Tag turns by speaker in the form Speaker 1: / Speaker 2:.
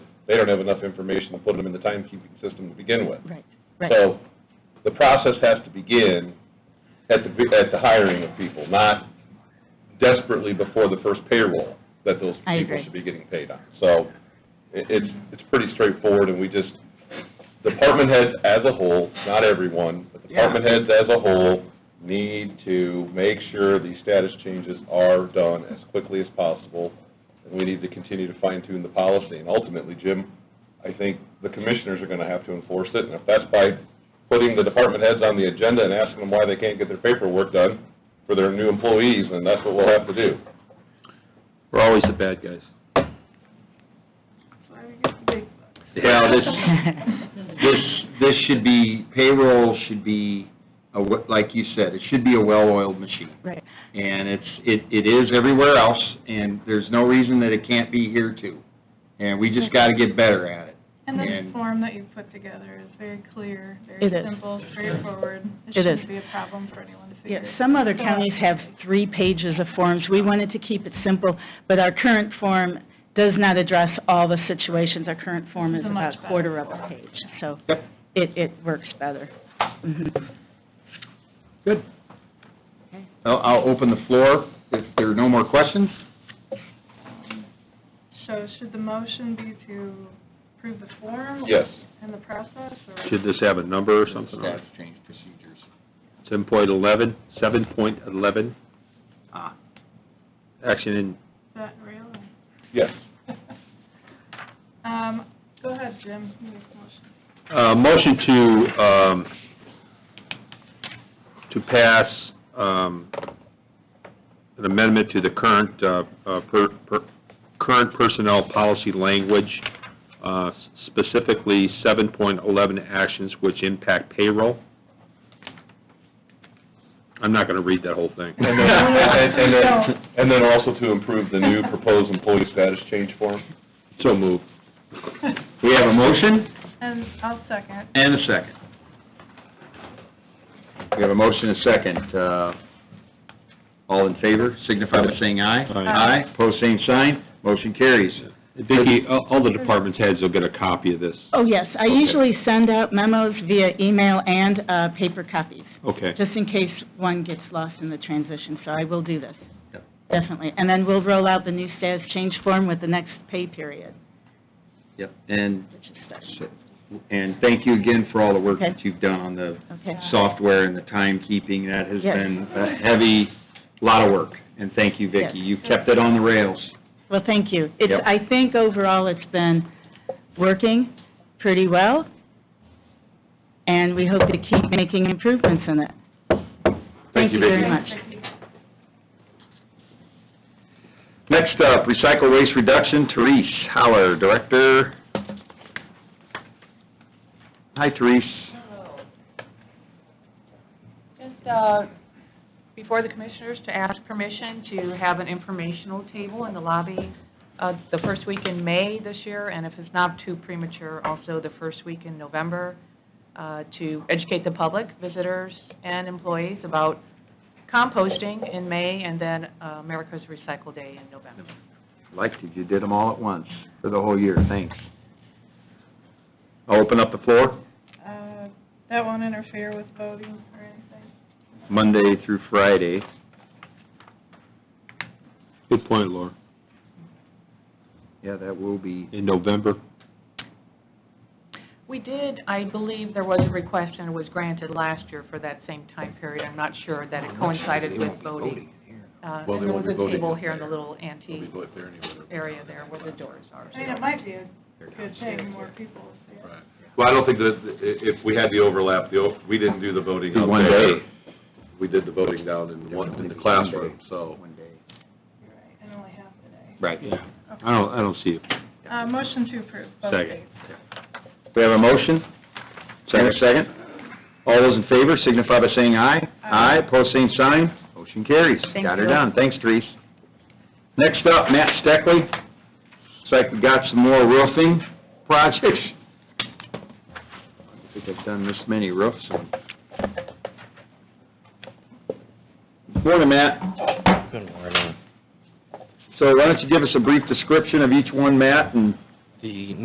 Speaker 1: they don't have enough information to put them in the timekeeping system to begin with.
Speaker 2: Right, right.
Speaker 1: So the process has to begin at the, at the hiring of people, not desperately before the first payroll that those
Speaker 2: I
Speaker 1: people
Speaker 2: agree.
Speaker 1: should be getting paid on. So it, it's, it's pretty straightforward, and we just, department heads as a whole, not everyone, but
Speaker 2: Yeah.
Speaker 1: department heads as a whole need to make sure these status changes are done as quickly as possible, and we need to continue to fine tune the policy. And ultimately, Jim, I think the commissioners are going to have to enforce it, and if that's by putting the department heads on the agenda and asking them why they can't get their paperwork done for their new employees, then that's what we'll have to do.
Speaker 3: We're always the bad guys. Well, this, this, this should be, payroll should be, a we- like you said, it should be a well-oiled machine.
Speaker 2: Right.
Speaker 3: And it's, it, it is everywhere else, and there's no reason that it can't be here too. And we just gotta get better at it.
Speaker 4: And
Speaker 3: And-
Speaker 4: this form that you've put together is very clear, very
Speaker 2: It is.
Speaker 4: simple, straightforward.
Speaker 2: It is.
Speaker 4: shouldn't be a problem for anyone to figure
Speaker 2: Yeah,
Speaker 4: out.
Speaker 2: some other
Speaker 4: So-
Speaker 2: counties have three pages of forms. We wanted to keep it simple, but our current form does not address all the situations. Our current form is
Speaker 4: It's a
Speaker 2: about
Speaker 4: much
Speaker 2: a quarter of
Speaker 4: better
Speaker 2: a
Speaker 4: form.
Speaker 2: page, so
Speaker 3: Yep.
Speaker 2: it, it works better. Mhm.
Speaker 3: Good. I'll, I'll open the floor if there are no more questions.
Speaker 4: So should the motion be to approve the form?
Speaker 1: Yes.
Speaker 4: And the process, or?
Speaker 5: Should this have a number or something? on it?
Speaker 3: Status change procedures.
Speaker 5: Seven point eleven, seven point eleven,
Speaker 3: Ah,
Speaker 5: action in,
Speaker 4: Is that real? or-
Speaker 1: Yes.
Speaker 4: Um, go ahead, Jim, you make the motion.
Speaker 5: uh, motion to, um, to pass, um, an amendment to the current, uh, uh, per, per, current personnel policy language, uh, specifically seven point eleven actions which impact payroll. I'm not gonna read that whole thing.
Speaker 1: And then, and and then, and then also to improve the new proposed employee status change form.
Speaker 5: So moved.
Speaker 3: we have a motion
Speaker 4: And I'll second.
Speaker 3: and a second. We have a motion and a second. Uh, all in favor, signify by saying aye.
Speaker 5: Aye.
Speaker 3: Aye, pose same sign, motion carries.
Speaker 5: Vicki, all all the department's heads will get a copy of this.
Speaker 2: Oh, yes, I
Speaker 5: Okay.
Speaker 2: usually send out memos via email and uh, paper copies,
Speaker 5: Okay.
Speaker 2: just in case one gets lost in the transition, so I will do this.
Speaker 3: Yep.
Speaker 2: Definitely. And then we'll roll out the new status change form with the next pay period,
Speaker 3: Yep, and,
Speaker 2: which is starting.
Speaker 3: and thank you again for all the work
Speaker 2: Okay.
Speaker 3: that you've done on the
Speaker 2: Okay.
Speaker 3: software and the timekeeping. That has
Speaker 2: Yes.
Speaker 3: been a heavy, lot of work, and thank you,
Speaker 2: Yes.
Speaker 3: Vicki. You've kept it on the rails.
Speaker 2: Well, thank you. It's,
Speaker 3: Yep.
Speaker 2: I think overall it's been working pretty well, and we hope to keep making improvements in it. Thank you
Speaker 5: you,
Speaker 2: very
Speaker 5: Vicki.
Speaker 2: much.
Speaker 3: Next up, recycle waste reduction, Therese Howler, Director. Hi, Therese.
Speaker 6: Just uh, before the commissioners to ask permission to have an informational table in the lobby uh, the first week in May this year, and if it's not too premature, also the first week in November, uh, to educate the public, visitors, and employees about composting in May, and then uh, America's Recycle Day in November.
Speaker 3: Liked it, you did them all at once for the whole year, thanks. I'll open up the floor,
Speaker 4: Uh, that won't interfere with voting or anything?
Speaker 3: Monday through Friday.
Speaker 5: Good point, Laura.
Speaker 3: Yeah, that will be,
Speaker 5: In November,
Speaker 6: We did, I believe there was a request, and it was granted last year for that same time period. I'm not sure that it coincided with voting. Uh,
Speaker 1: Well, they
Speaker 6: And there
Speaker 1: won't
Speaker 6: was
Speaker 1: be
Speaker 6: a
Speaker 1: voting
Speaker 6: table
Speaker 1: up
Speaker 6: here in
Speaker 1: there.
Speaker 6: the little antique
Speaker 1: We'll go there anyway.
Speaker 6: area there where the doors are.
Speaker 4: I mean, it might be a good thing, more people will see it.
Speaker 1: Right. Well, I don't think that, i- if we had the overlap, the, o- we didn't do the voting
Speaker 3: Did
Speaker 1: out
Speaker 3: one
Speaker 1: there.
Speaker 3: day.
Speaker 1: We did the voting down in one, in the classroom, so.
Speaker 3: One day.
Speaker 4: You're right, and only half the day.
Speaker 3: Right.
Speaker 5: yeah. I don't, I don't see it.
Speaker 4: Uh, motion to approve, both
Speaker 5: Second.
Speaker 4: days.
Speaker 3: We have a motion, and a second. All those in favor signify by saying aye.
Speaker 4: Aye.
Speaker 3: Pose same sign, motion carries.
Speaker 6: Thank
Speaker 3: Got her
Speaker 6: you.
Speaker 3: done, thanks, Therese. Next up, Matt Steckley. Looks like we got some more roofing projects. I think I've done this many roofs. Morning, Matt.
Speaker 7: Good morning.
Speaker 3: So why don't you give us a brief description of each one, Matt, and
Speaker 7: The